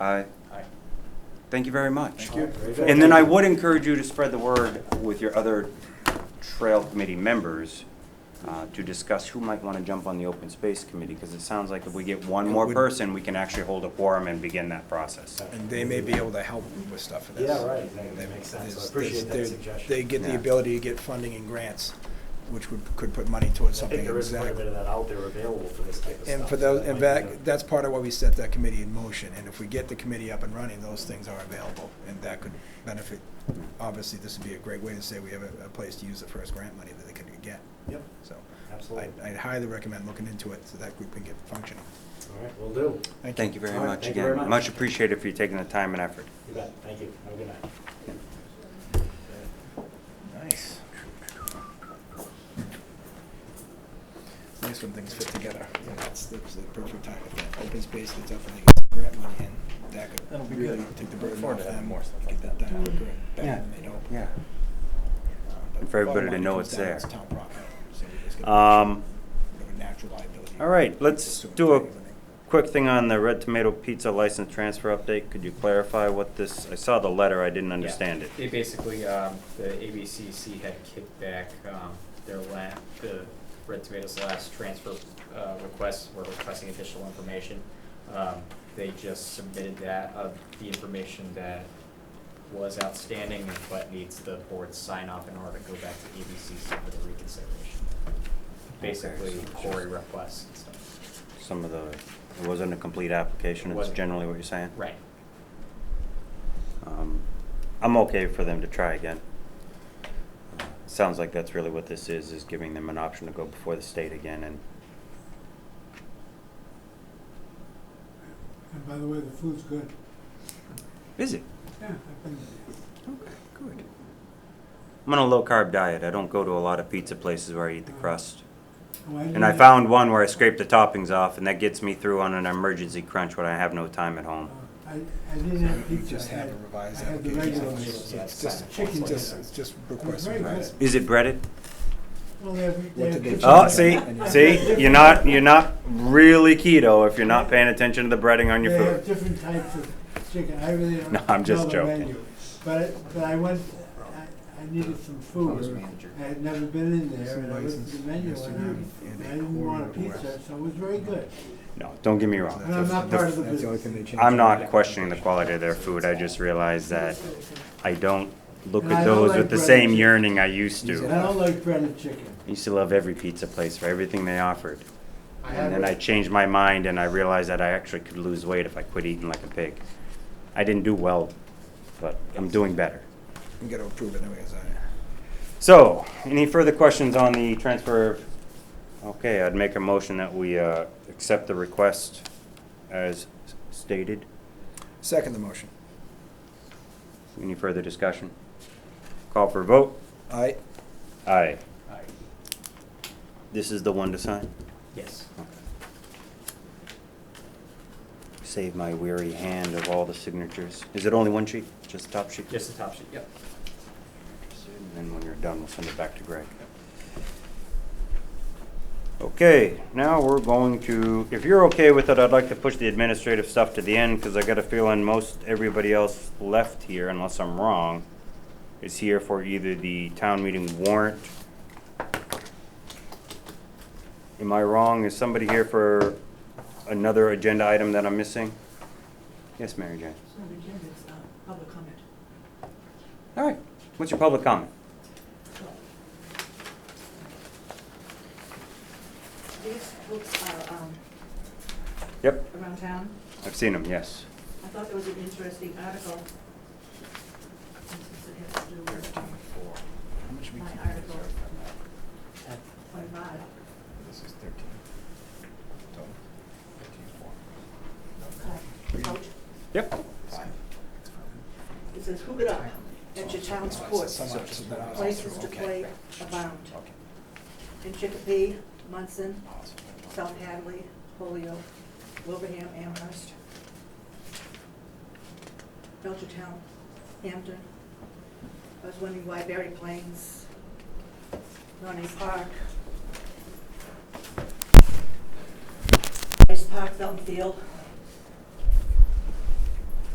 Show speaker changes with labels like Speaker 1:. Speaker 1: Aye.
Speaker 2: Aye.
Speaker 1: Thank you very much.
Speaker 2: Thank you. Very good.
Speaker 1: And then I would encourage you to spread the word with your other trail committee members uh, to discuss who might want to jump on the open space committee, because it sounds like if we get one more
Speaker 3: would-
Speaker 1: person, we can actually hold a quorum and begin that process.
Speaker 3: And they may be able to help with stuff for this.
Speaker 2: Yeah, right, that
Speaker 3: They-
Speaker 2: makes sense, I
Speaker 3: there's-
Speaker 2: appreciate that
Speaker 3: there's- They
Speaker 2: suggestion.
Speaker 3: get the
Speaker 1: Yeah.
Speaker 3: ability to get funding and grants, which would, could put money towards
Speaker 2: I
Speaker 3: something.
Speaker 2: think there is quite a
Speaker 3: exactly.
Speaker 2: bit of that out there available for this type of stuff.
Speaker 3: And for
Speaker 2: so
Speaker 3: those,
Speaker 2: that
Speaker 3: and
Speaker 2: might be
Speaker 3: that,
Speaker 2: a-
Speaker 3: that's part of why we set that committee in motion, and if we get the committee up and running, those things are available, and that could benefit. Obviously, this would be a great way to say we have a, a place to use the first grant money that they could get,
Speaker 2: Yep,
Speaker 3: so.
Speaker 2: absolutely.
Speaker 3: I- I'd highly recommend looking into it, so that group can get functioning.
Speaker 2: All right, will do.
Speaker 1: Thank you very
Speaker 2: All right,
Speaker 1: much
Speaker 2: thank you very
Speaker 1: again.
Speaker 2: much.
Speaker 1: Much appreciated for you taking the time and effort.
Speaker 2: You bet, thank you. Have a good night.
Speaker 3: Nice. Nice when things fit together. Yeah, that's, that's the perfect time. If that open space gets up and they get some grant money in, that
Speaker 4: That'll
Speaker 3: could
Speaker 4: be
Speaker 3: really
Speaker 4: good.
Speaker 3: take the
Speaker 4: Look
Speaker 3: burden
Speaker 4: forward
Speaker 3: off
Speaker 4: to having
Speaker 3: them.
Speaker 4: more stuff
Speaker 3: Get
Speaker 4: like
Speaker 3: that done
Speaker 4: that.
Speaker 3: quicker and
Speaker 1: Yeah,
Speaker 3: better than they know.
Speaker 1: yeah.
Speaker 3: Uh, but
Speaker 1: For everybody
Speaker 3: bottom
Speaker 1: to
Speaker 3: line, it
Speaker 1: know
Speaker 3: comes
Speaker 1: it's
Speaker 3: down,
Speaker 1: there.
Speaker 3: It's town property, so we just get
Speaker 1: Um,
Speaker 3: rid of a natural liability.
Speaker 1: All right, let's
Speaker 3: Assume
Speaker 1: do a
Speaker 3: it's anything.
Speaker 1: quick thing on the Red Tomato Pizza license transfer update. Could you clarify what this, I saw the letter, I didn't understand it.
Speaker 4: They basically, um, the ABCC had kicked back, um, their la, the Red Tomatoes last transfer, uh, request, were requesting additional information. Um, they just submitted that, uh, the information that was outstanding, but needs the board's sign off in order to go back to ABCC for the reconsideration. Basically,
Speaker 1: so it's just-
Speaker 4: Cory requests and stuff.
Speaker 1: Some of the, it wasn't a complete application,
Speaker 4: It
Speaker 1: it's
Speaker 4: wasn't.
Speaker 1: generally what you're saying?
Speaker 4: Right.
Speaker 1: Um, I'm okay for them to try again. Uh, Sounds like that's really what this is, is giving them an option to go before the state again and,
Speaker 5: And by the way, the food's good.
Speaker 1: is it?
Speaker 5: Yeah, I've been there.
Speaker 1: Okay, good. I'm on a low carb diet. I don't go to a lot of pizza places where I eat the crust.
Speaker 5: Oh,
Speaker 1: And I
Speaker 5: didn't-
Speaker 1: found one where I scraped the toppings off and that gets me through on an emergency crunch when I have no time at
Speaker 5: uh,
Speaker 1: home.
Speaker 5: I, I didn't have
Speaker 3: You
Speaker 5: pizza.
Speaker 3: just
Speaker 5: I
Speaker 3: have a
Speaker 5: had-
Speaker 3: revised
Speaker 5: I had the
Speaker 3: application.
Speaker 5: regular
Speaker 3: It's-
Speaker 5: one.
Speaker 3: It's just,
Speaker 5: Chicken
Speaker 3: it's just,
Speaker 5: dinner.
Speaker 3: it's just
Speaker 5: It's
Speaker 3: request
Speaker 5: very
Speaker 3: revised.
Speaker 5: good.
Speaker 1: Is it breaded?
Speaker 5: Well, they have, they
Speaker 3: What
Speaker 5: have
Speaker 3: did they
Speaker 5: kitchen
Speaker 1: Oh,
Speaker 3: Chicken
Speaker 1: see,
Speaker 3: joint.
Speaker 1: see, you're not, you're not really keto if you're not paying attention to the breading on your
Speaker 5: They have
Speaker 1: food.
Speaker 5: different types of chicken. I really don't.
Speaker 1: No, I'm just
Speaker 5: know the
Speaker 1: joking.
Speaker 5: menu. But, I- but I went, I, I needed some food. I had never been in there and I looked at the menu and I, and I didn't want a pizza, so it was very good.
Speaker 1: No, don't get me
Speaker 3: That's-
Speaker 1: wrong.
Speaker 5: And I'm
Speaker 3: that's-
Speaker 5: not part of the
Speaker 3: that's only thing they
Speaker 5: business.
Speaker 3: changed.
Speaker 1: I'm not questioning the quality of their food. I just realized that I don't look
Speaker 5: And I
Speaker 1: at
Speaker 5: don't
Speaker 1: those
Speaker 5: like
Speaker 1: with the
Speaker 5: bread
Speaker 1: same
Speaker 5: and-
Speaker 1: yearning I used to.
Speaker 5: And I don't like breaded chicken.
Speaker 1: I used to love every pizza place for everything they offered.
Speaker 5: I
Speaker 1: And then I
Speaker 5: haven't,
Speaker 1: changed my mind and I realized that I actually could lose weight if I quit eating like a pig. I didn't do well, but I'm doing better.
Speaker 3: We gotta approve it anyways, I.
Speaker 1: So, any further questions on the transfer? of- Okay, I'd make a motion that we uh, accept the request as s- stated.
Speaker 3: Second the motion.
Speaker 1: Any further discussion? Call for a vote?
Speaker 3: Aye.
Speaker 1: Aye.
Speaker 4: Aye.
Speaker 1: This is the one to sign?
Speaker 4: Yes.
Speaker 1: Save my weary hand of all the signatures. Is it only one sheet? Just the top sheet?
Speaker 4: Just the top sheet, yep.
Speaker 1: And then when you're done, we'll send it back to Greg. Okay, now we're going to, if you're okay with it, I'd like to push the administrative stuff to the end because I got a feeling most everybody else left here, unless I'm wrong, is here for either the town meeting warrant. Am I wrong? Is somebody here for another agenda item that I'm missing? Yes, Mary Jane?
Speaker 6: It's not agenda, it's uh, public comment.
Speaker 1: All right, what's your public comment?
Speaker 6: These books are um,
Speaker 1: Yep,
Speaker 6: around town.
Speaker 1: I've seen them, yes.
Speaker 6: I thought there was an interesting article. Since it has to do with um,
Speaker 3: How much we
Speaker 6: my
Speaker 3: keep in
Speaker 6: article
Speaker 3: reserve from that?
Speaker 6: twenty-five.
Speaker 3: This is thirteen. Total. Thirteen, four.
Speaker 6: uh, out.
Speaker 1: Yep.
Speaker 3: Five.
Speaker 6: It says, "Hook it up at your town's courts,
Speaker 3: Some options that I was
Speaker 6: places to
Speaker 3: through, okay.
Speaker 6: play abound
Speaker 3: Okay.
Speaker 6: in Chicopee, Munson,
Speaker 3: Awesome.
Speaker 6: South Hadley, Holyoke, Wilbraham, Amherst, Belchertown, Hampton. I was wondering why Berry Plains, Ronnie Park, Ice Park, Felton Field.